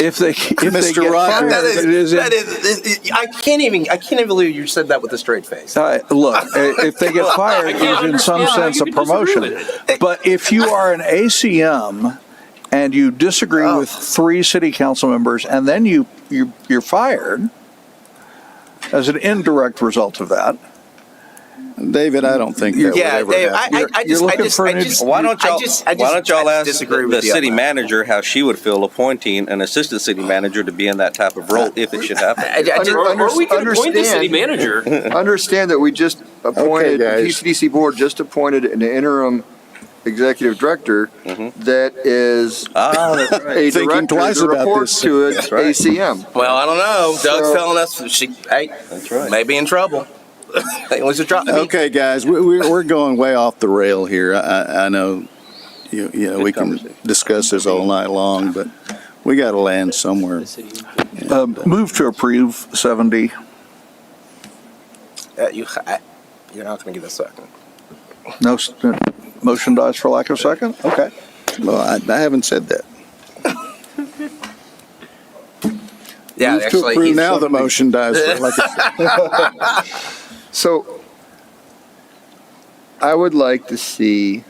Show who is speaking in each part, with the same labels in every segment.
Speaker 1: If they, if they
Speaker 2: Mr.
Speaker 1: get
Speaker 2: Rogers.
Speaker 1: fired,
Speaker 3: That is,
Speaker 1: it is.
Speaker 3: that is, it- it- I can't even, I can't even believe you said that with a straight face.
Speaker 1: Uh, look, i- if they get fired, it is in some
Speaker 4: understand how
Speaker 1: sense
Speaker 4: you
Speaker 1: a
Speaker 4: can disagree
Speaker 1: promotion. But if you are an ACM and you disagree with three city council members and then you, you, you're fired as an indirect result of that,
Speaker 2: David, I don't think that would
Speaker 3: Yeah,
Speaker 2: ever
Speaker 3: Dave, I,
Speaker 2: happen.
Speaker 3: I, I
Speaker 1: You're-
Speaker 3: just,
Speaker 1: you're
Speaker 3: I
Speaker 1: looking
Speaker 3: just,
Speaker 1: for an
Speaker 3: I
Speaker 1: ex-
Speaker 3: just.
Speaker 5: Why don't
Speaker 3: I
Speaker 5: y'all,
Speaker 3: just- I
Speaker 5: why
Speaker 3: just-
Speaker 5: don't y'all
Speaker 3: I
Speaker 5: ask
Speaker 3: disagree
Speaker 5: the,
Speaker 3: with
Speaker 5: the
Speaker 3: you on
Speaker 5: city
Speaker 3: that.
Speaker 5: manager how she would feel appointing an assistant city manager to be in that type of role if it should happen?
Speaker 3: Uh, I- I just-
Speaker 6: Under-
Speaker 4: Or, or we can appoint the city
Speaker 6: understand-
Speaker 4: manager.
Speaker 6: Understand that we just appointed, the
Speaker 2: guys.
Speaker 6: TCDC board just appointed an interim executive director
Speaker 2: Mm-hmm.
Speaker 6: that is
Speaker 5: Ah, that's
Speaker 6: a
Speaker 2: Thinking
Speaker 6: director
Speaker 2: twice
Speaker 6: that
Speaker 2: about
Speaker 6: reports
Speaker 2: this.
Speaker 6: to it,
Speaker 5: right.
Speaker 6: ACM.
Speaker 3: Well, I don't know. Doug's
Speaker 6: So-
Speaker 3: telling us she, hey,
Speaker 5: That's right.
Speaker 3: may be in trouble. It was a drop. I mean,
Speaker 2: Okay, guys, we, we, we're going way off the rail here. I, I, I know, you, you know, we can discuss this all night long, but we got to land somewhere.
Speaker 1: um, move to approve 7D.
Speaker 3: uh, you, I, you're not going to get a second.
Speaker 1: No, s- uh, motion dies for lack of second? Okay.
Speaker 2: Well, I, I haven't said that.
Speaker 3: Yeah,
Speaker 2: Move to
Speaker 3: actually,
Speaker 2: approve
Speaker 3: he's-
Speaker 2: now, the motion dies. for lack of-
Speaker 6: So I would like to see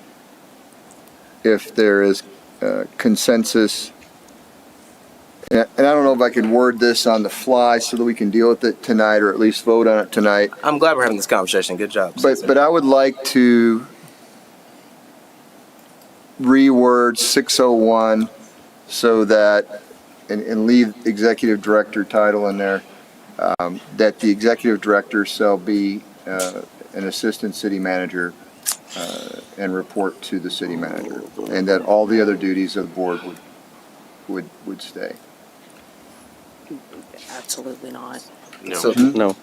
Speaker 6: if there is uh, consensus. And I and I don't know if I can word this on the fly so that we can deal with it tonight or at least vote on it tonight.
Speaker 3: I'm glad we're having this conversation. Good job.
Speaker 6: But,
Speaker 3: Susan.
Speaker 6: but I would like to reword 601 so that, and, and leave executive director title in there, um, that the executive director shall be, uh, an assistant city manager, uh, and report to the city manager, and that all the other duties of the board would, would, would stay.
Speaker 7: Absolutely not.
Speaker 3: So-
Speaker 5: No.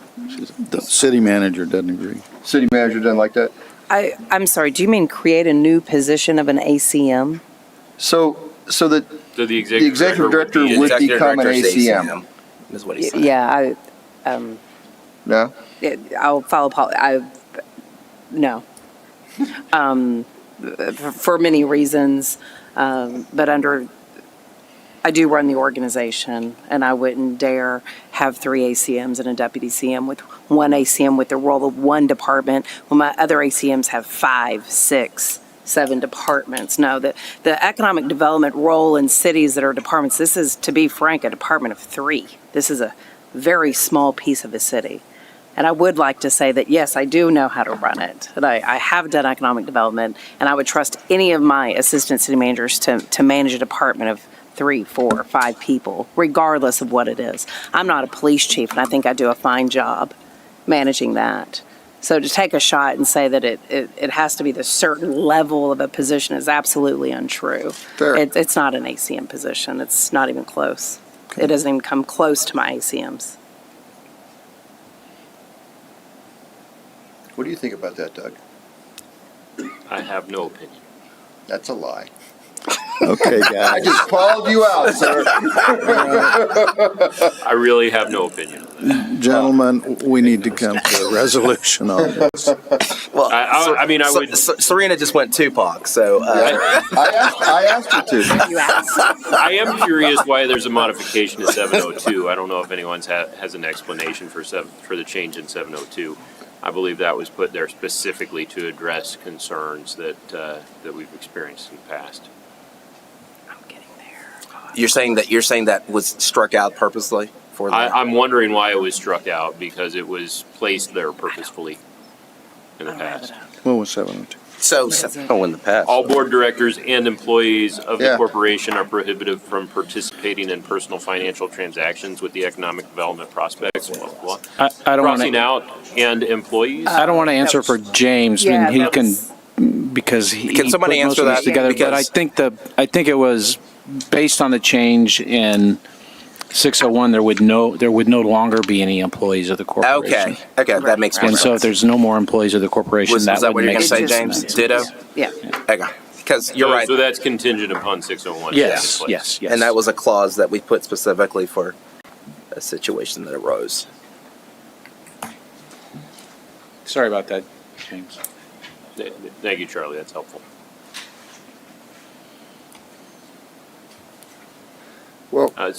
Speaker 2: The city manager doesn't agree.
Speaker 6: City manager doesn't like that?
Speaker 7: I, I'm sorry, do you mean create a new position of an ACM?
Speaker 6: So, so that
Speaker 4: So the
Speaker 6: the
Speaker 4: executive
Speaker 6: executive
Speaker 4: director
Speaker 6: director
Speaker 4: would be
Speaker 6: would
Speaker 3: Executive
Speaker 6: become an
Speaker 3: director is
Speaker 6: ACM,
Speaker 3: Is what he
Speaker 7: Y-
Speaker 3: said.
Speaker 7: Yeah, I, um,
Speaker 6: no?
Speaker 7: it- I'll follow Paul, I, no. Um, for- for many reasons, um, but under, I do run the organization, and I wouldn't dare have three ACMs and a deputy CM with one ACM with the role of one department, when my other ACMs have five, six, seven departments. No, the, the economic development role in cities that are departments, this is, to be frank, a department of three. This is a very small piece of a city. And I would like to say that, yes, I do know how to run it, that I, I have done economic development, and I would trust any of my assistant city managers to, to manage a department of three, four, five people, regardless of what it is. I'm not a police chief, and I think I do a fine job managing that. So to take a shot and say that it, it, it has to be the certain level of a position is absolutely untrue.
Speaker 6: Fair.
Speaker 7: It, it's not an ACM position, it's not even close. It doesn't even come close to my ACMs.
Speaker 6: What do you think about that, Doug?
Speaker 4: I have no opinion.
Speaker 6: That's a lie.
Speaker 2: Okay, guys.
Speaker 6: just called you out, sir.
Speaker 4: I really have no opinion.
Speaker 2: Gentlemen, we need to come to a resolution on this.
Speaker 3: Well,
Speaker 4: I- I-
Speaker 3: Ser-
Speaker 4: I mean, I
Speaker 3: Ser-
Speaker 4: would-
Speaker 3: Ser- Serena just went Tupac, so uh,
Speaker 4: I,
Speaker 6: I asked, I asked her to.
Speaker 7: You ask.
Speaker 4: I am curious why there's a modification to 702. I don't know if anyone's ha- has an explanation for seven, for the change in 702. I believe that was put there specifically to address concerns that uh, that we've experienced in the past.
Speaker 7: I'm getting there.
Speaker 3: you're saying that you're saying that was struck out purposely for
Speaker 4: I,
Speaker 3: that.
Speaker 4: I'm wondering why it was struck out because it was placed there purposefully in the past.
Speaker 2: What was seven oh two?
Speaker 3: so,
Speaker 5: Oh, in the past.
Speaker 4: All board directors and employees of the
Speaker 6: Yeah.
Speaker 4: corporation are prohibited from participating in personal financial transactions with the economic development prospects, blah, blah, blah.
Speaker 8: I, I don't Uh, want
Speaker 4: Crossing
Speaker 8: to.
Speaker 4: out and employees.
Speaker 8: I don't want to answer for James. I
Speaker 7: Yeah,
Speaker 8: mean, he
Speaker 7: that's-
Speaker 8: can because he
Speaker 3: Can
Speaker 8: he
Speaker 3: somebody
Speaker 8: put most
Speaker 3: answer
Speaker 8: of
Speaker 3: that?
Speaker 8: this together. But I
Speaker 3: Because-
Speaker 8: think the I think it was based on the change in 601. There would no there would no longer be any employees of the corporation.
Speaker 3: okay, okay, that makes more
Speaker 8: And
Speaker 3: sense.
Speaker 8: so, if there's no more employees of the corporation,
Speaker 3: was,
Speaker 8: that
Speaker 3: was that what
Speaker 8: would
Speaker 3: you're
Speaker 8: make
Speaker 3: going to say,
Speaker 7: sense.
Speaker 3: James? Ditto.
Speaker 7: Yeah.
Speaker 3: Okay, because you're
Speaker 4: So-
Speaker 3: right,
Speaker 4: So that's contingent upon 601.
Speaker 8: Yes,
Speaker 4: taking place.
Speaker 8: yes, yes.
Speaker 3: and that was a clause that we put specifically for a situation that arose.
Speaker 8: Sorry about that, James.
Speaker 4: Th- th- Thank you, Charlie. That's helpful.
Speaker 6: Well,
Speaker 4: Uh,